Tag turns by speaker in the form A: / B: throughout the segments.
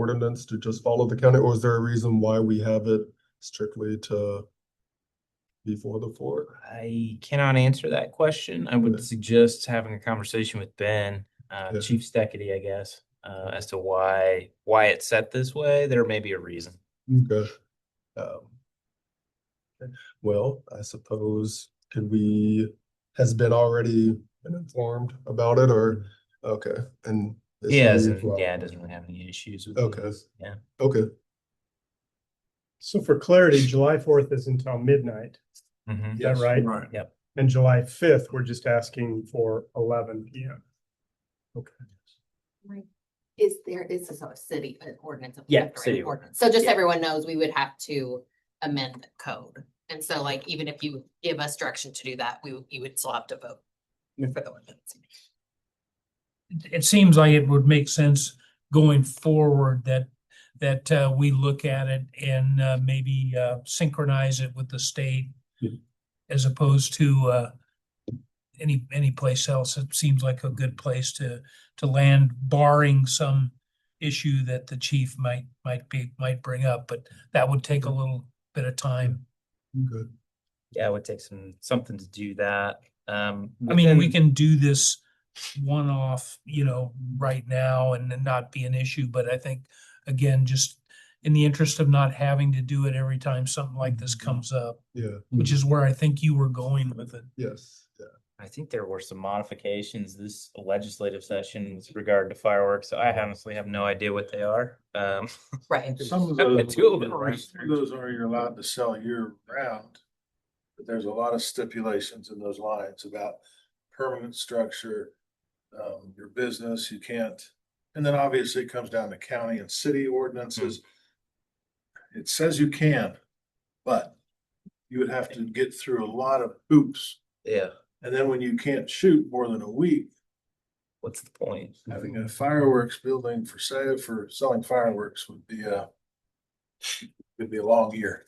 A: ordinance to just follow the county, or is there a reason why we have it strictly to before the fourth?
B: I cannot answer that question. I
A: Okay.
B: would suggest having a conversation with Ben, uh,
A: Yeah.
B: Chief Steckity, I guess, uh, as to why, why it's set this way. There may be a reason.
C: Mm.
A: Okay. Um, okay. Well, I suppose, could we, has Ben already been informed about it, or, okay, and? it's
B: He has,
A: moved, well,
B: yeah, it doesn't really have any issues with it.
A: Okay.
B: Yeah.
A: Okay,
C: So for clarity, July fourth is until midnight,
B: Mhm.
C: is that right?
D: Right.
B: Yep.
C: And July fifth, we're just asking for eleven P M.
E: Right. Is there, is this a city an ordinance? a
B: Yeah,
E: prefect or an
B: city
E: ordinance? So just
B: yeah.
E: everyone knows, we would have to amend the code. And so like, even if you give us direction to do that, we, would- you would still have to vote
B: Mm.
E: for the ordinance.
D: It- It seems like it would make sense going forward that, that uh, we look at it and uh, maybe uh, synchronize it with the state
A: Yeah.
D: as opposed to uh, any, any place else. It seems like a good place to, to land barring some issue that the chief might, might be, might bring up, but that would take a little bit of time.
A: good,
B: Yeah, it would take some, something to do that. Um.
D: I mean, we
B: within-
D: can do this one-off, you know, right now and then not be an issue, but I think, again, just in the interest of not having to do it every time something like this comes up,
A: yeah,
D: which is where I think you were going with it.
A: yes, yeah.
B: I think there were some modifications this legislative session with regard to fireworks. I honestly have no idea what they are. Um,
E: Right.
F: Some of
B: Yeah,
F: those,
B: two of them,
F: some
B: right?
F: of those are you're allowed to sell year round. But there's a lot of stipulations in those lines about permanent structure, um, your business, you can't. And then obviously it comes down to county and city ordinances. It says you can, but you would have to get through a lot of hoops.
B: yeah,
F: And then when you can't shoot more than a week,
B: what's the point?
F: having a fireworks building for sale, for selling fireworks would be a, would be a long year.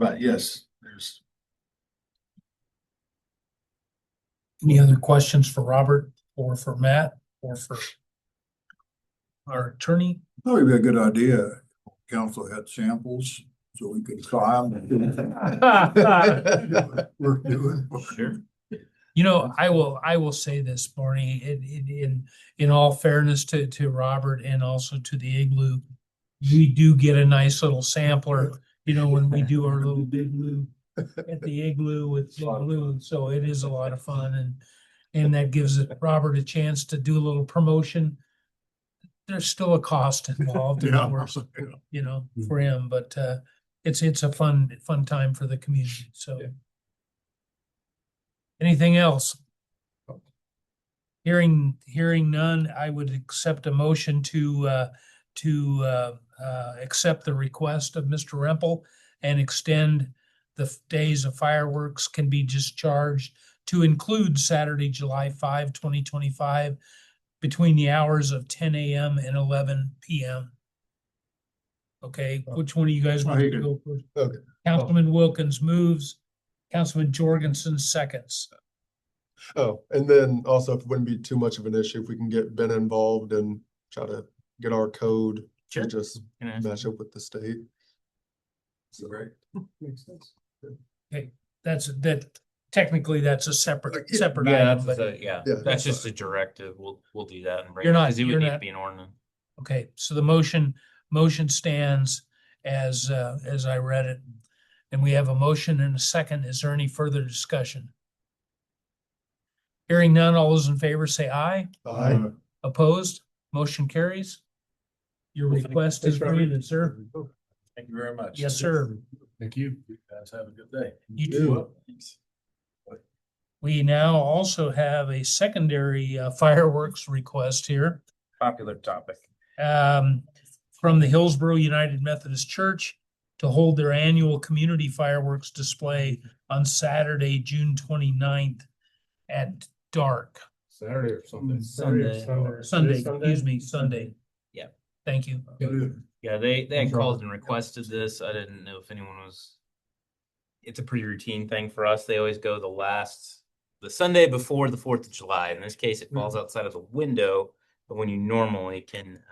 F: But yes, there's,
D: Any other questions for Robert or for Matt or for our attorney?
G: Probably be a good idea, if council had samples, so we could try them. Worth doing.
B: Sure.
D: You know, I will, I will say this, Barney, in, in, in, in all fairness to, to Robert and also to the igloo. We do get a nice little sampler, you know, when we do our little big blue at the igloo with the balloon, so it is a lot of fun and. And that gives it- Robert a chance to do a little promotion. There's still a cost involved, in
G: Yeah.
D: works, you know, for him, but, uh, it's, it's a fun, fun time for the community, so. Anything else? Hearing, hearing none, I would accept a motion to, uh, to, uh, uh, accept the request of Mr. Rempel and extend the f- days of fireworks can be discharged to include Saturday, July 5, 2025, between the hours of ten AM and eleven PM. Okay, which one of you guys want to
G: Reagan.
D: go first?
A: Okay.
D: Councilman Wilkins moves, Councilman Jorgensen seconds.
A: Oh, and then also if it wouldn't be too much of an issue if we can get Ben involved and try to get our code to
B: Sure.
A: just
B: Can I-
A: match up with the state. So,
F: right,
C: Makes sense.
D: That's, that, technically, that's a separate, separate
B: Yeah,
D: item,
B: that's, a-
D: but,
B: yeah,
A: Yeah,
B: that's
A: that's
B: just a directive. We'll, we'll do that and bring.
D: You're
B: it-
D: not-
B: 'cause it would
D: you're
B: need to
D: not-
B: Be an ordinance.
D: okay, so the motion, motion stands as, uh, as I read it. And we have a motion and a second, is there any further discussion? Hearing none, all those in favor say aye,
G: Uh,
A: Aye.
D: opposed, motion carries. Your
C: Well, thank-
D: request is
C: thanks, Robert.
D: granted, sir,
F: thank you very much.
D: yes, sir.
F: Thank you. You guys have a good day.
D: You too. We now also have a secondary uh, fireworks request here.
B: Popular topic.
D: um, from the Hillsborough United Methodist Church to hold their annual community fireworks display on Saturday, June 29th at dark.
F: Saturday or Sunday.
B: Sunday.
D: Sunday, excuse me, Sunday.
B: Yep.
D: Thank you.
B: Yeah, they, they had
D: Enjoy.
B: called and requested this. I didn't know if anyone was. It's a pretty routine thing for us. They always go the
D: Hmm.
B: last, the Sunday before the Fourth of July. In this case, it falls outside of the window But when you normally can